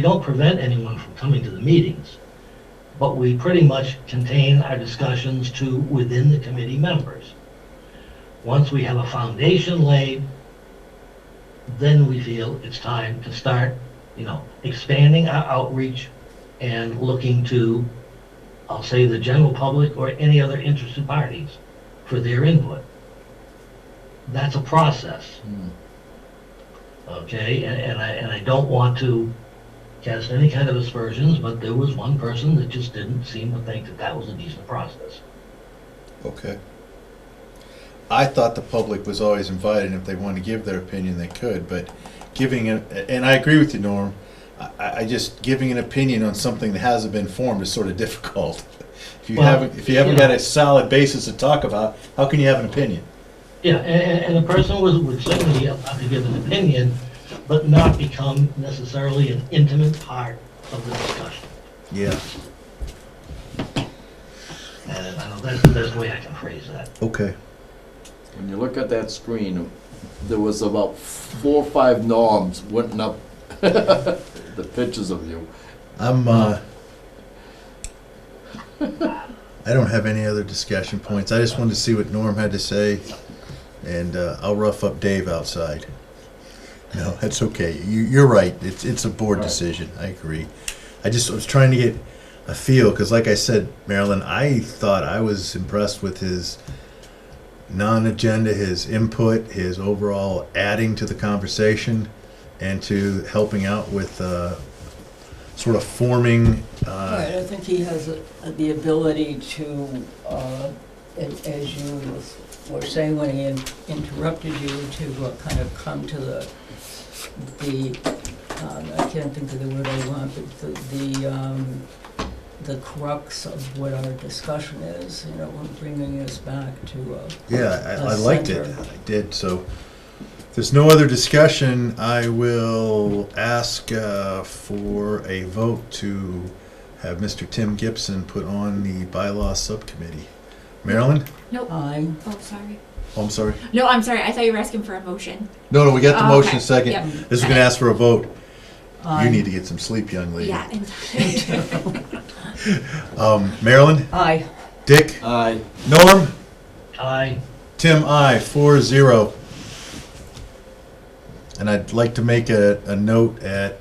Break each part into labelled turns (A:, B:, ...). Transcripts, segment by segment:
A: We don't prevent anyone from coming to the meetings, but we pretty much contain our discussions to within the committee members. Once we have a foundation laid, then we feel it's time to start, you know, expanding our outreach and looking to, I'll say, the general public or any other interested parties for their input. That's a process, okay? And, and I, and I don't want to cast any kind of aspersions, but there was one person that just didn't seem to think that that was a decent process.
B: Okay. I thought the public was always invited, and if they want to give their opinion, they could, but giving, an and I agree with you, Norm, I- I, I just, giving an opinion on something that hasn't been formed is sort of difficult. If you
A: Well,
B: haven't, if you haven't
A: you
B: got
A: know.
B: a solid basis to talk about, how can you have an opinion?
A: Yeah, and, and the person was, would certainly have to give an opinion, but not become necessarily an intimate part of the discussion.
B: Yeah.
A: And I know that's the best way I can phrase that.
B: Okay.
C: When you look at that screen, there was about four or five norms went up, the pictures of you.
B: I'm, uh, I don't have any other discussion points. I just wanted to see what Norm had to say, and uh, I'll rough up Dave outside. No, that's okay. You, you're right. It's, it's a board
C: All right.
B: decision. I agree. I just was trying to get a feel, because like I said, Marilyn, I thought I was impressed with his non-agenda, his input, his overall adding to the conversation, and to helping out with uh, sort of forming.
D: I
B: Uh,
D: don't think he has uh, the ability to, uh, a- as you were saying when he in- interrupted you, to uh, kind of come to the, the, um, I can't think of the word I want, but the, the, um, the crux of what our discussion is, you know, bringing us back to, uh,
B: yeah, I, I
D: A
B: liked it.
D: center.
B: I did. So if there's no other discussion. I will ask uh, for a vote to have Mr. Tim Gibson put on the bylaw subcommittee. Marilyn?
E: Nope.
D: I,
E: Oh, sorry.
B: Oh, I'm sorry.
E: No, I'm sorry. I thought you were asking for a motion.
B: No, no, we got the
E: Oh,
B: motion
E: okay.
B: second.
E: Yep.
B: This is going to ask for a vote.
D: I.
B: You need to get some sleep, young lady.
E: Yeah. And
B: Um, Marilyn?
D: I,
B: Dick?
C: Aye.
B: Norm?
A: I,
B: Tim, I four zero. And I'd like to make a, a note at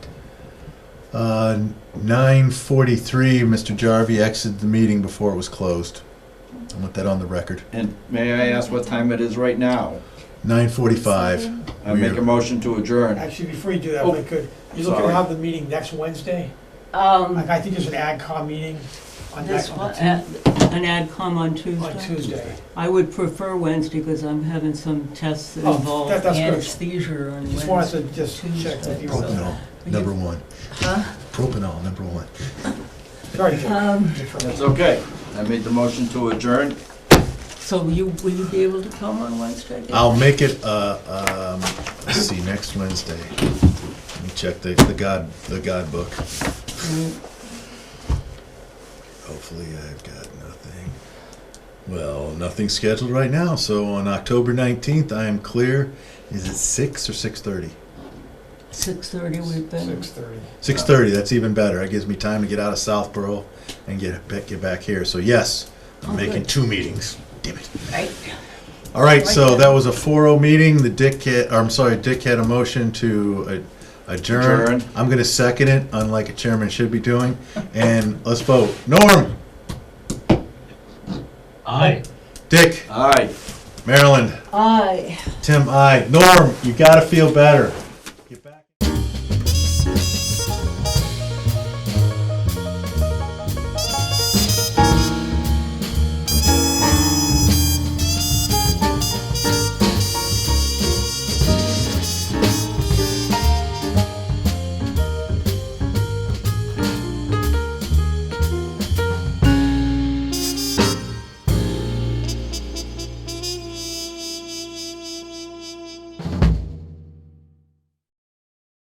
B: uh, nine forty-three, Mr. Jarvie exited the meeting before it was closed. I want that on the record.
C: And may I ask what time it is right now?
B: Nine forty-five.
C: I make a motion to adjourn.
F: Actually, before you do that, if I could, you looking to
C: Sorry.
F: have the meeting next Wednesday?
D: um,
F: Like, I think there's an AgCom meeting on
D: this
F: next,
D: one,
F: on
D: uh, an ad com on
F: Tuesday.
D: I would prefer Wednesday because I'm having some tests that
F: Oh,
D: involve
F: that- that's good.
D: anesthesia on
F: Just wanted
D: Wednesday.
F: to just check with you. on
B: Propanol, number one.
D: Huh?
B: Propanol, number one.
F: that. Sorry.
D: Um,
C: It's
F: Jim.
C: okay. I made the motion to adjourn.
D: So you, will you be able to come on Wednesday?
B: I'll make it, uh, um, let's see, next Wednesday. Let me check the, the God, the God book.
D: Mm,
B: Hopefully, I've got nothing. Well, nothing scheduled right now. So on October nineteenth, I am clear. Is it six or six thirty?
D: 6:30 we've been,
F: Six thirty.
B: Six thirty. That's even better. That gives me time to get out of Southborough and get back, get back here. So yes, I'm
D: Oh,
B: making
D: good.
B: two meetings. Damn it.
D: right?
B: All right.
D: Like
B: so
D: that.
B: that was a 4-0 meeting. The dick. Had, or I'm sorry. Dick had a motion to uh, adjourn.
C: Adjourn.
B: I'm going to second it, unlike a chairman should be doing. And let's vote. Norm,
A: I.
B: Dick,
C: Aye.
B: Maryland.
D: Aye.
B: Tim, I. Norm, you gotta feel better.